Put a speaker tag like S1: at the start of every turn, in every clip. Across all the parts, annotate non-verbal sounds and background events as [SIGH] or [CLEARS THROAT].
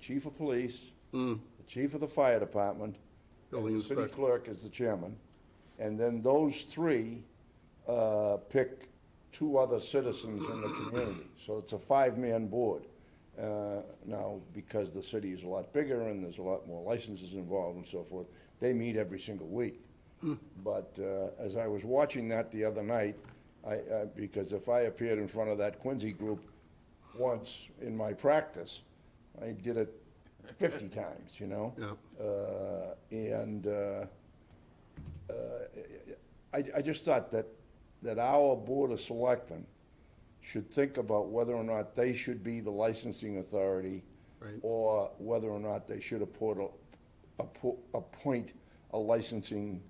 S1: chief of police, the chief of the fire department,
S2: Building
S1: and the city
S2: inspector.
S1: clerk is the chairman. And then those three uh, pick two other citizens in the community. So it's a five-man board. Uh, Now, because the city is a lot bigger and there's a lot more licenses involved and so forth, they meet every single week. But uh, as I was watching that the other night, I, I- because if I appeared in front of that Quincy group once in my practice, I did it 50 times, you know?
S2: Yeah.
S1: Uh, And uh, uh, I, I just thought that, that our Board of Selectmen should think about whether or not they should be the licensing authority
S2: Right.
S1: or whether or not they should appoint, a- appo- appoint a licensing,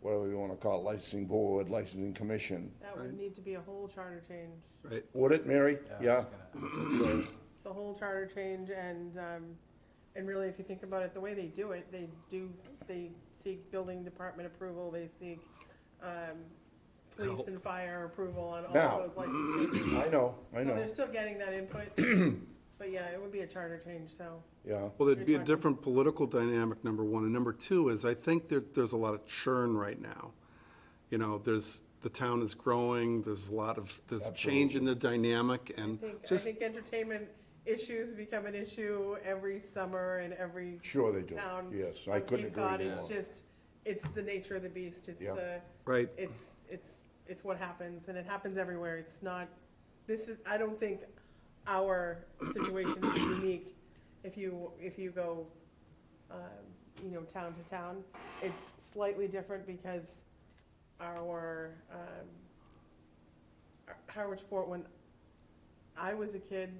S1: whatever you want to call it, licensing board, licensing commission.
S3: That would need to be a whole charter change.
S2: Right,
S1: Would it, Mary? Yeah?
S3: It's a whole charter change and, um, and really, if you think about it, the way they do it, they do, they seek building department approval, they seek, um, police and fire approval on all
S1: Now.
S3: of those license changes.
S1: I know, [CLEARS THROAT] I
S3: So
S1: know,
S3: they're still getting that input,
S1: [CLEARS THROAT]
S3: but yeah, it would be a charter change, so.
S1: yeah.
S2: well, there'd be a
S3: You're talking-
S2: different political dynamic, number one, and number two is, I think that there's a lot of churn right now. You know, there's, the town is growing, there's a lot of, there's a change in the dynamic, and
S1: Um,
S3: I think, I
S2: just,
S3: think entertainment issues become an issue every summer and every.
S1: Sure they do.
S3: Town.
S1: Yes, I
S3: on
S1: couldn't
S3: Cape Cod.
S1: agree
S3: It's
S1: more.
S3: just, it's the nature of the beast, it's
S1: Yeah.
S3: the.
S2: Right.
S3: It's, it's, it's what happens, and it happens everywhere, it's not, this is, I don't think our situation
S1: [COUGHS]
S3: is unique. If you, if you go, um, you know, town to town, it's slightly different because our, um, Howard Sport when I was a kid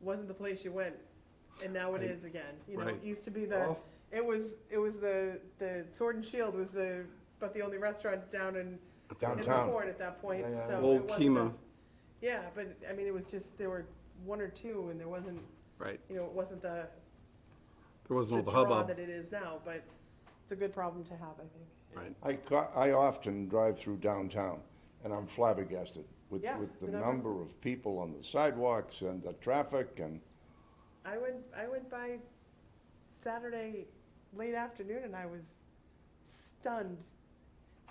S3: wasn't the place you went, and now it is again. You know,
S2: Right.
S3: it used to be the
S1: Oh.
S2: Well-
S3: it was it was the the Sword and Shield was the but the only restaurant down in in the
S1: Downtown.
S3: port at that point.
S1: Yeah, yeah,
S3: So
S1: yeah.
S3: it
S2: Old
S3: wasn't a-
S2: Kima.
S3: Yeah, but I mean, it was just there were one or two, and there wasn't
S2: right,
S3: you know it wasn't the,
S2: there wasn't
S3: the
S2: all the
S3: draw
S2: hubbub,
S3: that it is now. But it's a good problem to have, I think.
S2: right?
S1: I, ca- I often drive through downtown, and I'm flabbergasted with,
S3: Yeah,
S1: with the
S3: the numbers.
S1: number of people on the sidewalks and the traffic and,
S3: I went I went by Saturday late afternoon and I was stunned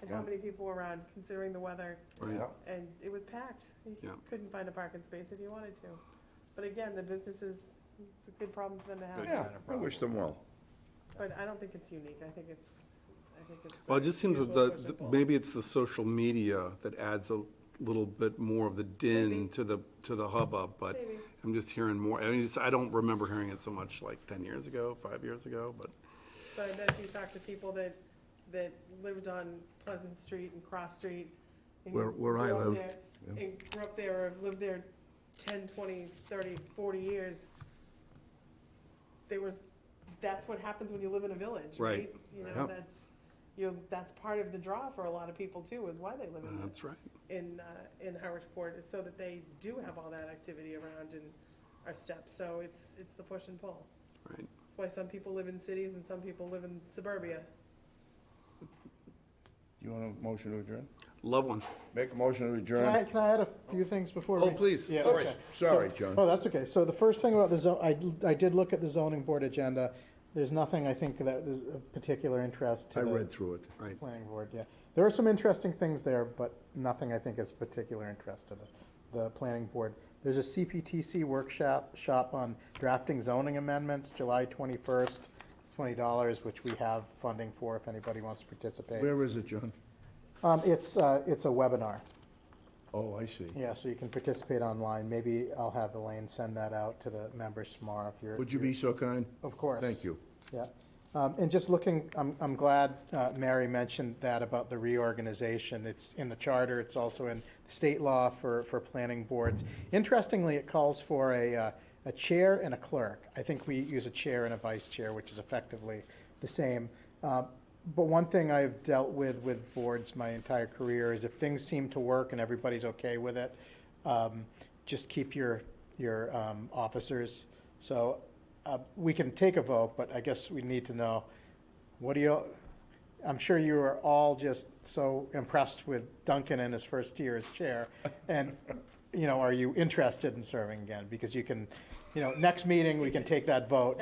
S3: at how
S1: Yeah.
S3: many people were around considering the weather
S2: Right.
S1: yeah.
S3: and it was packed. You
S2: Yeah.
S3: couldn't find a parking space if you wanted to. But again, the businesses it's a good problem for them to have.
S1: Yeah, I wish them well.
S3: But I don't think it's unique. I think it's I think it's
S2: Well, it
S3: the
S2: just seems that
S3: usual
S2: the,
S3: push and
S2: the-
S3: pull.
S2: maybe it's the social media that adds a little bit more of the din
S3: Maybe.
S2: to the, to the hubbub, but
S3: Maybe.
S2: I'm just hearing more, I mean, it's- I don't remember hearing it so much like ten years ago, five years ago, but, uh,
S3: But I bet if you talk to people that, that lived on Pleasant Street and Cross Street. and
S4: Where- where I
S3: grew up
S4: live,
S3: there- And grew up there or lived there 10, 20, 30, 40 years. There was, that's what happens when you live in a village,
S2: Right.
S3: right? You
S1: Yeah.
S3: know, that's, you know, that's part of the draw for a lot of people too, is why they live
S2: uh,
S3: in,
S2: that's
S3: the-
S2: right.
S3: in, uh, in Howardsport, is so that they do have all that activity around and our steps. So it's, it's the push and pull.
S2: Right.
S3: That's why some people live in cities and some people live in suburbia.
S1: Do you want a motion to adjourn?
S2: Love one.
S1: Make a motion to
S5: Can I,
S1: adjourn?
S5: can I add a few things before?
S2: Oh,
S5: we-
S2: please.
S5: Yeah,
S2: Sorry.
S5: okay.
S1: Sorry,
S5: So-
S1: John.
S5: Oh, that's okay. So the first thing about the zone, I, I did look at the zoning board agenda. There's nothing, I think, that is of particular interest to
S4: I read
S5: the
S4: through it.
S2: Right.
S5: planning board, yeah. There are some interesting things there, but nothing, I think, is of particular interest to the, the planning board. There's a CPTC workshop, shop on drafting zoning amendments, July twenty-first, twenty dollars, which we have funding for if anybody wants to participate.
S4: Where is it, John?
S5: Um, it's, uh, it's a webinar.
S4: Oh, I see.
S5: Yeah, so you can participate online. Maybe I'll have Elaine send that out to the members tomorrow if you're.
S4: Would you be so kind?
S5: Of course.
S4: Thank you.
S5: Yeah. Um, and just looking, I'm, I'm glad, uh, Mary mentioned that about the reorganization. It's in the charter. It's also in state law for, for planning boards. Interestingly, it calls for a, uh, a chair and a clerk. I think we use a chair and a vice chair, which is effectively the same. Uh, but one thing I've dealt with with boards my entire career is if things seem to work and everybody's okay with it, um, just keep your your um, officers. So uh, we can take a vote, but I guess we need to know what do you. I'm sure you are all just so impressed with Duncan in his first year as chair, and you know, are you interested in serving again? Because you can, you know, next meeting we can take that vote.